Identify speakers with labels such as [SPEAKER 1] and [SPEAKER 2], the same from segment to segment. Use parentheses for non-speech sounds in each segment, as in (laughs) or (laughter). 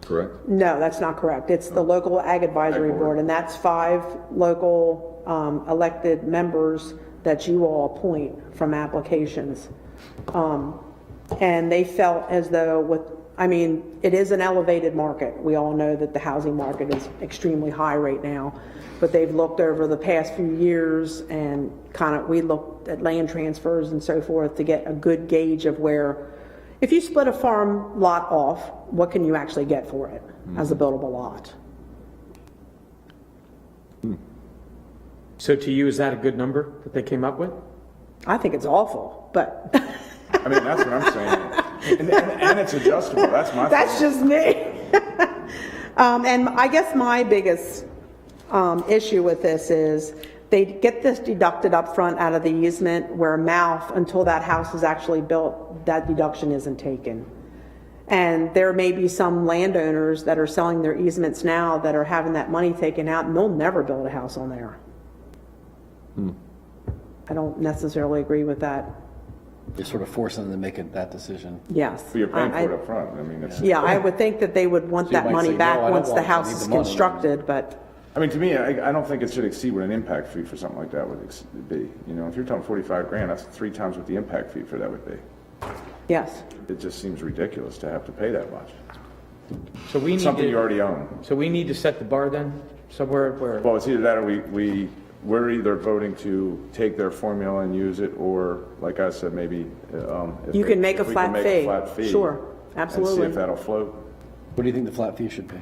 [SPEAKER 1] correct?
[SPEAKER 2] No, that's not correct. It's the local ag advisory
[SPEAKER 1] Oh. Ag board.
[SPEAKER 2] board, and that's five local um, elected members that you all appoint from applications. Um, And they felt as though with, I mean, it is an elevated market. We all know that the housing market is extremely high right now, but they've looked over the past few years and kind of, we looked at land transfers and so forth to get a good gauge of where if you split a farm lot off, what can you actually get for it as a
[SPEAKER 3] Hmm.
[SPEAKER 2] buildable lot?
[SPEAKER 3] Hmm. So to you, is that a good number that they came up with?
[SPEAKER 2] I think it's awful, but (laughs)
[SPEAKER 4] I mean, that's what I'm saying. And, and, and it's adjustable, that's my
[SPEAKER 2] that's
[SPEAKER 4] thing.
[SPEAKER 2] just me. (laughs) um, and I guess my biggest um, issue with this is they get this deducted up front out of the easement where mouth until that house is actually built, that deduction isn't taken. And there may be some landowners that are selling their easements now that are having that money taken out and they'll never build a house on there.
[SPEAKER 4] Hmm.
[SPEAKER 2] I don't necessarily agree with that.
[SPEAKER 5] You're sort of forcing them to make it- that decision.
[SPEAKER 2] Yes.
[SPEAKER 4] You're paying
[SPEAKER 2] I-
[SPEAKER 4] for it upfront, I mean, it's.
[SPEAKER 2] Yeah, I would think that they would want
[SPEAKER 5] So you
[SPEAKER 2] that
[SPEAKER 5] might say,
[SPEAKER 2] money
[SPEAKER 5] "No, I
[SPEAKER 2] back
[SPEAKER 5] don't
[SPEAKER 2] once the
[SPEAKER 5] want it. I
[SPEAKER 2] house
[SPEAKER 5] need
[SPEAKER 2] is
[SPEAKER 5] the money."
[SPEAKER 2] constructed, but,
[SPEAKER 4] I mean, to me, I, I don't think it should exceed what an impact fee for something like that would ex- be. You know, if you're talking forty-five grand, that's three times what the impact fee for that would be.
[SPEAKER 2] yes.
[SPEAKER 4] It just seems ridiculous to have to pay that much.
[SPEAKER 3] So we need
[SPEAKER 4] Something you
[SPEAKER 3] to,
[SPEAKER 4] already own.
[SPEAKER 3] so we need to set the bar then, somewhere where,
[SPEAKER 4] Well, it's either that or we, we, we're either voting to take their formula and use it, or, like I said, maybe, um. if
[SPEAKER 2] You
[SPEAKER 4] they-
[SPEAKER 2] can make a
[SPEAKER 4] if we
[SPEAKER 2] flat fee.
[SPEAKER 4] flat fee
[SPEAKER 2] Sure,
[SPEAKER 4] And see
[SPEAKER 2] absolutely.
[SPEAKER 4] if that'll float.
[SPEAKER 5] What do you think the flat fee should be?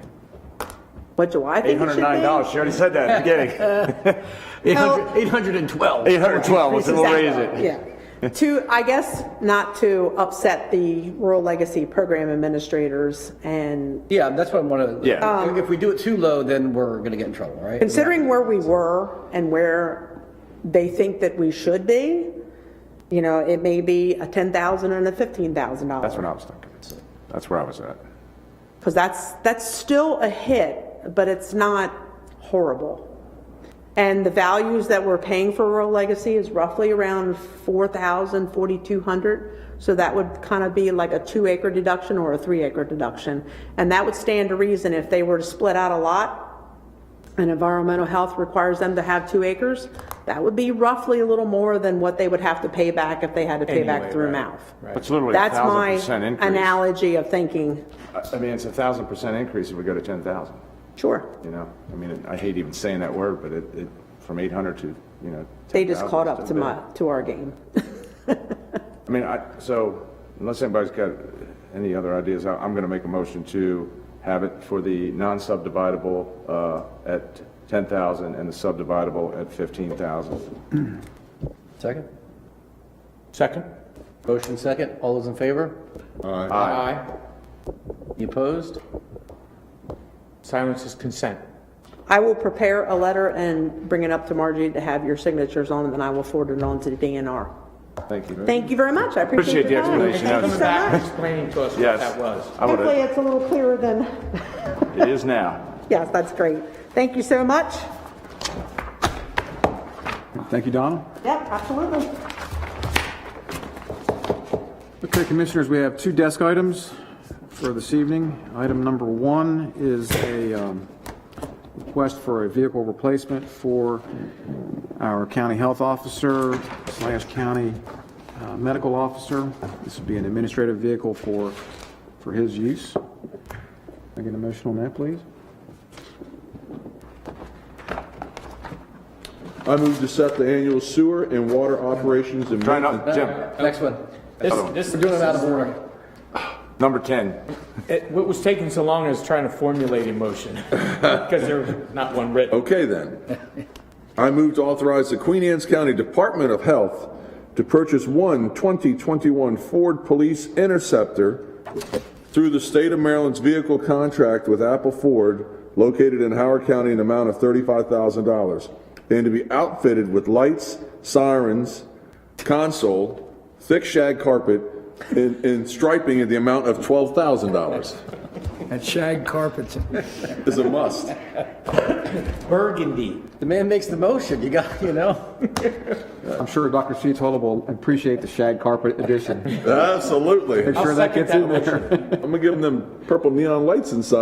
[SPEAKER 2] What do I
[SPEAKER 4] Eight
[SPEAKER 2] think it should
[SPEAKER 4] hundred
[SPEAKER 2] be?
[SPEAKER 4] nine dollars, she already said that at the
[SPEAKER 2] (laughs)
[SPEAKER 4] beginning.
[SPEAKER 5] (laughs) 812.
[SPEAKER 4] Eight hundred twelve, we'll raise it.
[SPEAKER 2] Yeah. To, I guess, not to upset the Rural Legacy Program Administrators and
[SPEAKER 5] Yeah, that's what I want to.
[SPEAKER 4] Yeah.
[SPEAKER 5] If we do it too low, then we're going to get in trouble, right?
[SPEAKER 2] considering where we were and where they think that we should be, you know, it may be a ten thousand and a fifteen thousand dollar.
[SPEAKER 4] That's what I was thinking. That's where I was at.
[SPEAKER 2] because that's that's still a hit, but it's not horrible. And the values that we're paying for Rural Legacy is roughly around 4,000, 4,200. So that would kind of be like a two acre deduction or a three acre deduction. And that would stand to reason if they were to split out a lot and environmental health requires them to have two acres, that would be roughly a little more than what they would have to pay back if they had to pay back
[SPEAKER 3] Anyway,
[SPEAKER 2] through
[SPEAKER 3] right,
[SPEAKER 2] mouth.
[SPEAKER 4] It's literally a
[SPEAKER 2] That's
[SPEAKER 4] thousand
[SPEAKER 2] my
[SPEAKER 4] percent increase.
[SPEAKER 2] analogy of thinking,
[SPEAKER 4] I- I mean, it's a thousand percent increase if we go to ten thousand,
[SPEAKER 2] sure.
[SPEAKER 4] you know? I mean, I hate even saying that word, but it, it, from eight hundred to, you know.
[SPEAKER 2] They just
[SPEAKER 4] 10,000
[SPEAKER 2] caught
[SPEAKER 4] is
[SPEAKER 2] up to
[SPEAKER 4] still
[SPEAKER 2] my,
[SPEAKER 4] big.
[SPEAKER 2] to our game.
[SPEAKER 4] I mean, I, so unless anybody's got any other ideas, I- I'm going to make a motion to have it for the non-subdividable uh, at 10,000 and the subdividable at 15,000.
[SPEAKER 5] Second?
[SPEAKER 3] second?
[SPEAKER 5] Motion second. All those in favor?
[SPEAKER 3] Aye.
[SPEAKER 5] You opposed?
[SPEAKER 3] Silence is consent.
[SPEAKER 2] I will prepare a letter and bring it up to Margie to have your signatures on, it, and I will forward it on to the DNR.
[SPEAKER 4] Thank you.
[SPEAKER 2] Thank you very much, I
[SPEAKER 4] Appreciate
[SPEAKER 2] appreciate
[SPEAKER 4] the
[SPEAKER 2] your time.
[SPEAKER 4] explanation.
[SPEAKER 2] Thank you
[SPEAKER 3] Coming
[SPEAKER 2] so
[SPEAKER 3] back,
[SPEAKER 2] much.
[SPEAKER 3] explaining to us what
[SPEAKER 4] Yes.
[SPEAKER 3] that was.
[SPEAKER 4] I would
[SPEAKER 2] Hopefully,
[SPEAKER 4] have-
[SPEAKER 2] it's a little clearer than,
[SPEAKER 4] It is now.
[SPEAKER 2] yes, that's great. Thank you so much.
[SPEAKER 6] Thank you, Donald.
[SPEAKER 2] Yep, absolutely.
[SPEAKER 6] Okay, Commissioners, we have two desk items for this evening. Item number one is a um, request for a vehicle replacement for our county health officer slash county uh, medical officer. This would be an administrative vehicle for, for his use. Can I get a motion on that, please?
[SPEAKER 7] I move to set the annual sewer and water operations and
[SPEAKER 4] Try not,
[SPEAKER 7] maintenance.
[SPEAKER 4] Jim,
[SPEAKER 5] Next one.
[SPEAKER 4] Other
[SPEAKER 3] This,
[SPEAKER 5] We're doing it out
[SPEAKER 3] this,
[SPEAKER 5] of order.
[SPEAKER 4] number 10.
[SPEAKER 3] it- what was taking so long is trying to formulate a motion, (laughs) because there's not one written.
[SPEAKER 7] Okay, then. I move to authorize the Queen Anne's County Department of Health to purchase one 2021 Ford Police Interceptor through the state of Maryland's vehicle contract with Apple Ford located in Howard County in an amount of $35,000 and to be outfitted with lights, sirens, console, thick shag carpet, and, and striping at the amount of $12,000
[SPEAKER 8] That shag carpet's,
[SPEAKER 7] is a must.
[SPEAKER 3] Burgundy.
[SPEAKER 5] The man makes the motion. You got, (laughs) you know?
[SPEAKER 6] I'm sure Dr. Sheetholm will appreciate the shag
[SPEAKER 3] (laughs)
[SPEAKER 6] carpet addition.
[SPEAKER 7] Absolutely.
[SPEAKER 6] Make sure that
[SPEAKER 3] second
[SPEAKER 6] gets in
[SPEAKER 3] that
[SPEAKER 6] there.
[SPEAKER 7] I'm gonna give them them purple neon lights inside.